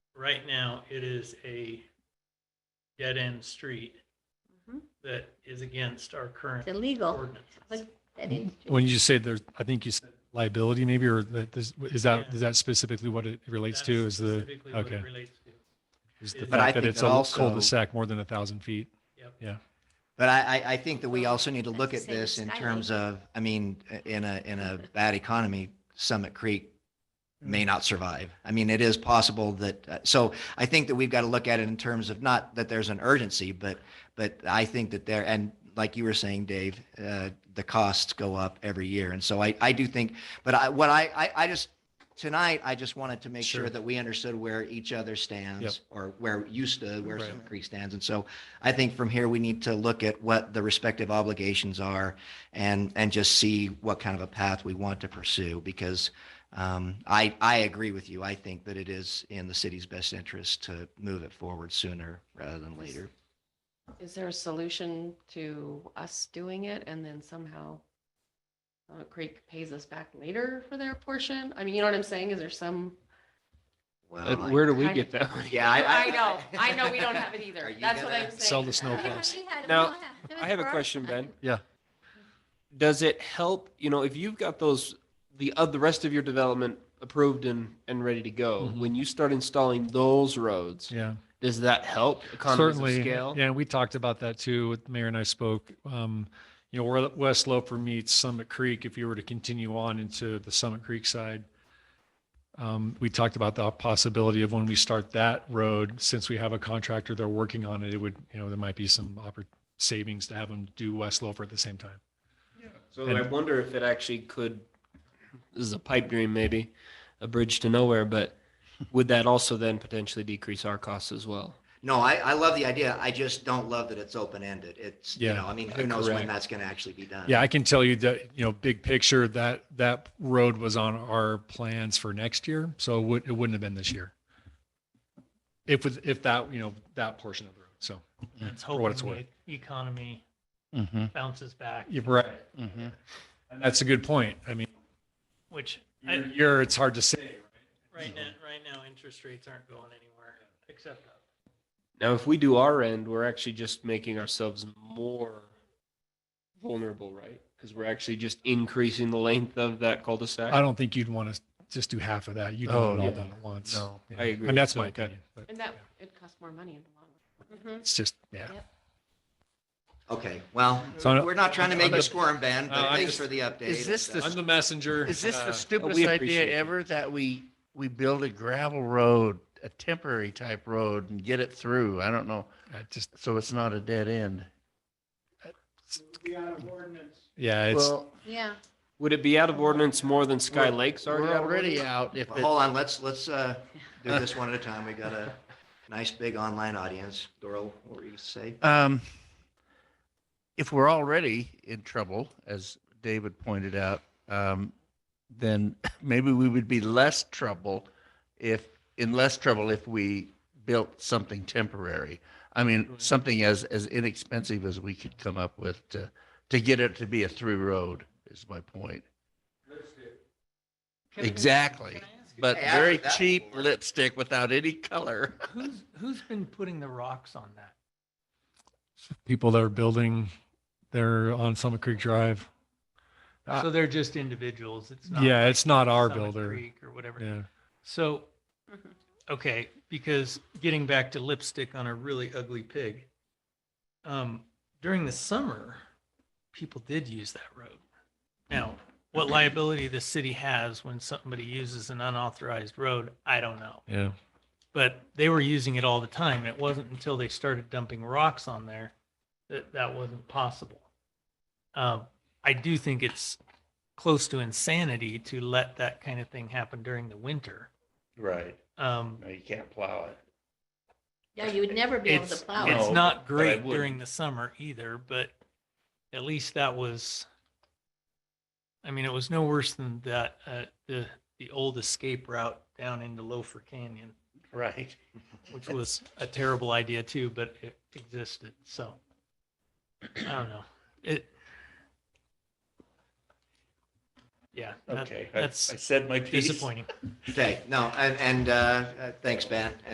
right now, it is a dead-end street Mhm. that is against our current It's illegal. ordinances. That is true. When you say there's, I think you said liability maybe, or that this, is that, Yeah. is that specifically what it relates That's to is the, specifically what it okay. relates to. is the But fact I that think it's that a also- cul-de-sac more than a thousand feet? Yep. Yeah. But I, I, I think that we Well, also need to that's look the at same this as in Skyline. terms of, I mean, in a, in a bad economy, Summit Creek may not survive. I mean, it is possible that, uh, so I think that we've got to look at it in terms of not that there's an urgency, but, but I think that there, and like you were saying, Dave, uh, the costs go up every year. And so I, I do think, but I, what I, I, I just, tonight, I just wanted to make sure Sure. that we understood where each other Yep. stands or where you stood, where Right. Summit Creek stands. And so I think from here, we need to look at what the respective obligations are and, and just see what kind of a path we want to pursue. Because um, I, I agree with you. I think that it is in the city's best interest to move it forward sooner rather than later. Is there a solution to us doing it and then somehow Summit Creek pays us back later for their portion? I mean, you know what I'm saying? Is there some? Well, I- where do we I- get that money? Yeah, I know, I know, we don't have it Are either. you That's what gonna- I'm saying. Sell the snow We plows. already had- we Now, don't have to do I it have a for our question, time. Ben. Yeah. Does it help, you know, if you've got those, the, uh, the rest of your development approved and, and ready to go, Mhm. when you start installing those roads, Yeah. does that help economies of Certainly. scale? Yeah, we talked about that too. with Mayor and I spoke, um, you know, where West Loper meets Summit Creek, if you were to continue on into the Summit Creek side. Um, we talked about the possibility of when we start that road, since we have a contractor, they're working on it, it would, you know, there might be some oppor- savings to have them do West Loper at the same time. So And- I wonder if it actually could. This is a pipe dream, maybe, a bridge to nowhere. But would that also then potentially decrease our costs as well? No, I, I love the idea. I just don't love that it's open-ended. It's, you Yeah, know, I mean, who knows when correct. that's going to actually be done. Yeah, I can tell you that, you know, big picture, that, that road was on our plans for next year. So it would, it wouldn't have been this year. If, with- if that, you know, that portion of the road. So. That's Mm, For what it's Mm-hmm. hoping the economy bounces back, You're right. Mm-hmm. And that's a good point. I mean, which I- year, to year, it's hard to say. Mm-hmm. right now, right now, interest rates aren't going anywhere except up. Now, if we do our end, we're actually just making ourselves more vulnerable, right? Because we're actually just increasing the length of that cul-de-sac. I don't think you'd want to just do half of that. You'd want it Oh, all yeah. done at once. No, Yeah. I agree. And that's my So, opinion, but And that, it costs more money in the long run. it's just, yeah. Okay, well, So- we're not trying to make I'm you just- squirm, Ben, No, but Uh, I'm thanks just- for the update. Is this And, uh, the I'm the messenger. Is this uh, the stupidest appreciate it. idea ever that we, we build a gravel road, a temporary type road and get it through? I don't know. I just, So it's not a dead end. yeah, it's, Well, Yeah. Would it be out of ordinance more than Sky We're- Lake's already? we're out of already ordinance? out if Well, it, Hold on, let's, let's uh, do this one at a time. We got a nice big online audience. Doral, what were you gonna say? um, if we're already in trouble, as David pointed out, um, then maybe we would be less trouble if, in less trouble if we built something temporary. I mean, Right. something as, as inexpensive as we could come up with to, to get it to be a through road is my point. Exactly. But Hey, I've very heard that cheap before. lipstick without any color. Who's, who's been putting the rocks on that? people that are building, they're on Summit Creek Drive. Uh, So they're just individuals. It's not. Yeah, it's not our Summit builder. Creek Or whatever. Yeah. So, okay, because getting back to lipstick on a really ugly pig, um, during the summer, people did use that road. Now, what liability the city has when somebody uses an unauthorized road, I don't know. Yeah. But they were using it all the time. And it wasn't until they started dumping rocks on there that that wasn't possible. Um, I do think it's close to insanity to let that kind of thing happen during the winter. Right. Um, No, you can't plow it. Yeah, you would never be able to it's, plow it's it. No, not but I great wouldn't. during the summer either, but at least that was, I mean, it was no worse than that, uh, the, the old escape route down into Loafer Canyon, Right. which was a terrible idea too, but it existed. So I don't know. It, yeah, that- Okay. I I that's said my piece. disappointing. Okay, no, and, and uh, uh, thanks, Ben.